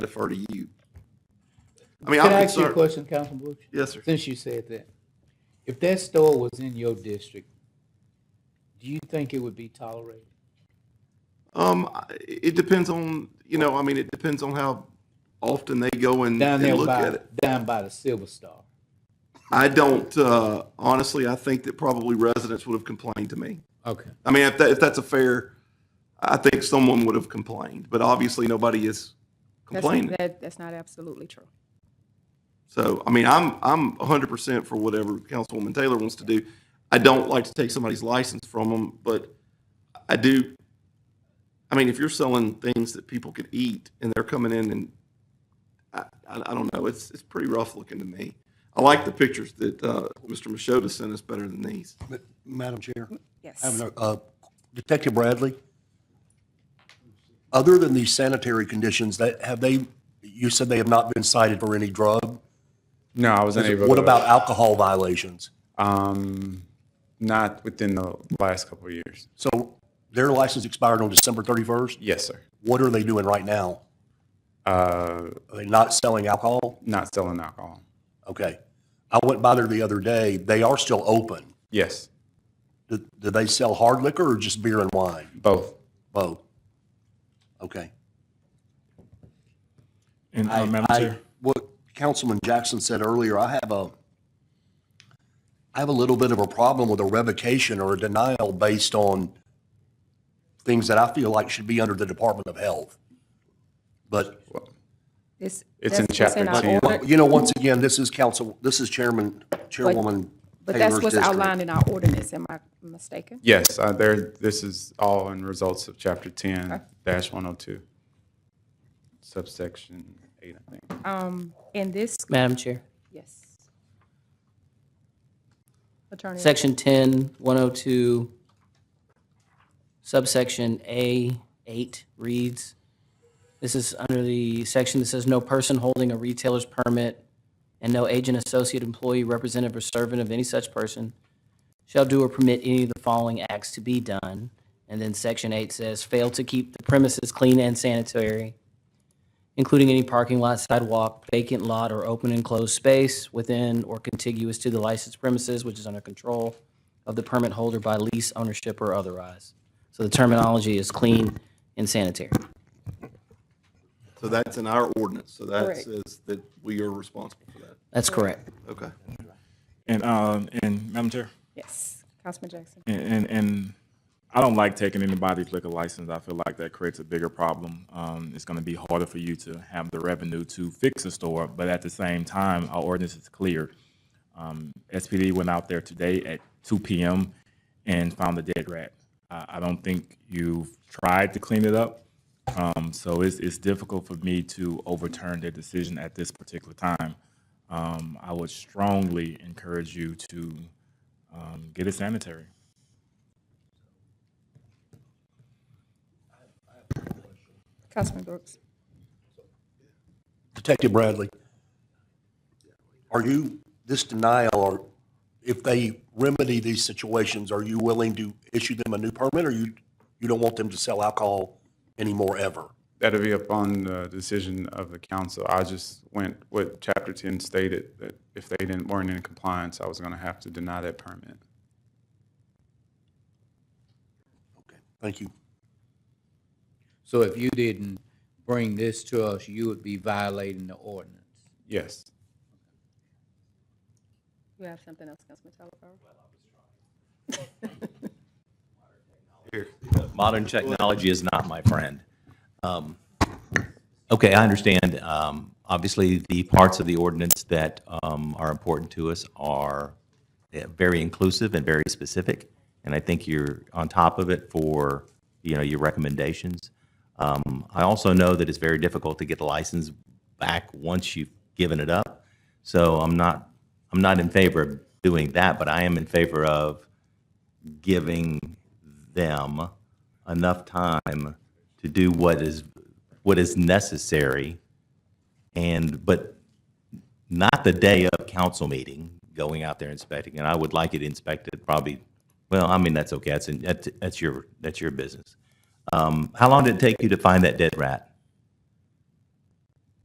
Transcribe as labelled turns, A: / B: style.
A: defer to you. I mean, I'm
B: Can I ask you a
A: concerned.
B: question, Councilman Brooks?
A: Yes, sir.
B: Since you said that, if that store was in your district, do you think it would be tolerated?
A: Um, I- it depends on, you know, I mean, it depends on how often they go and,
B: Down
A: and
B: there
A: look at
B: by,
A: it.
B: down by the Silver Star.
A: I don't, uh, honestly, I think that probably residents would have complained to me.
B: Okay.
A: I mean, if that, if that's a fair, I think someone would have complained, but obviously nobody is
C: That's-
A: complaining.
C: That, that's not absolutely true.
A: So, I mean, I'm, I'm hundred percent for whatever Councilwoman Taylor wants to do. I don't like to take somebody's license from them, but I do, I mean, if you're selling things that people could eat and they're coming in and I, I, I don't know, it's, it's pretty rough looking to me. I like the pictures that, uh, Mr. Machota sent us better than these.
D: Ma- Madam Chair, I have
C: Yes.
D: no- uh, Detective Bradley, other than these sanitary conditions, that, have they, you said they have not been cited for any drug?
E: No, I wasn't able.
D: What
E: to-
D: about alcohol violations?
E: Um, not within the last couple of years.
D: So their license expired on December 31st?
E: Yes, sir.
D: What are they doing right now?
E: Uh,
D: Are they not selling alcohol?
E: not selling alcohol.
D: Okay. I went by there the other day. They are still open.
E: Yes,
D: Do do they sell hard liquor or just beer and wine?
E: both.
D: Both? Okay.
F: And uh,
D: I-
F: Madam
D: I-
F: Chair,
D: What Councilman Jackson said earlier, I have a, I have a little bit of a problem with a revocation or a denial based on things that I feel like should be under the Department of Health. But,
C: It's,
E: It's in
C: that's what's in
E: chapter
C: our
E: 10.
C: order-
D: you know, once again, this is council, this is Chairman, Chairwoman
C: But that's
D: Taylor's
C: what's
D: district.
C: outlined in our ordinance, am I mistaken?
E: Yes, uh, there. This is all in results of chapter ten dash one hundred two, subsection eight, I think.
C: Um, in this,
G: Madam Chair,
C: yes. Attorney,
G: section 10, 102, subsection A8 reads, this is under the section that says, "No person holding a retailer's permit and no agent, associate, employee, representative, or servant of any such person shall do or permit any of the following acts to be done." And then section 8 says, "Fail to keep the premises clean and sanitary, including any parking lot, sidewalk, vacant lot, or open and closed space within or contiguous to the licensed premises, which is under control of the permit holder by lease, ownership, or otherwise. So the terminology is clean and sanitary.
A: So that's in our ordinance. So that
C: Correct.
A: says that we are responsible for that.
G: That's correct.
A: Okay.
F: and um, and Madam Chair,
C: yes, Councilman Jackson.
F: and, and and I don't like taking anybody's liquor license. I feel like that creates a bigger problem. Um, it's going to be harder for you to have the revenue to fix a store, but at the same time, our ordinance is clear. Um, SPD went out there today at 2 p.m. and found a dead rat. I, I don't think you've tried to clean it up. Um, so it's, it's difficult for me to overturn their decision at this particular time. Um, I would strongly encourage you to um, get it sanitary.
C: Councilman Brooks.
D: Detective Bradley, are you, this denial, or if they remedy these situations, are you willing to issue them a new permit, or you, you don't want them to sell alcohol anymore ever?
E: That'll be upon the decision of the council. I just went what chapter ten stated that if they didn't weren't in compliance, I was going to have to deny that permit.
D: Okay, Thank you.
B: So if you didn't bring this to us, you would be violating the ordinance.
E: Yes.
C: You have something else, Councilman Taylor?
H: modern technology is not my friend. Um, Okay, I understand. Um, Obviously, the parts of the ordinance that um, are important to us are eh, very inclusive and very specific, and I think you're on top of it for, you know, your recommendations. Um, I also know that it's very difficult to get the license back once you've given it up, so I'm not, I'm not in favor of doing that, but I am in favor of giving them enough time to do what is what is necessary and but not the day of council meeting going out there inspecting and i would like it inspected probably well i mean that's okay that's, that's, that's your that's your business um, how long did it take you to find that dead rat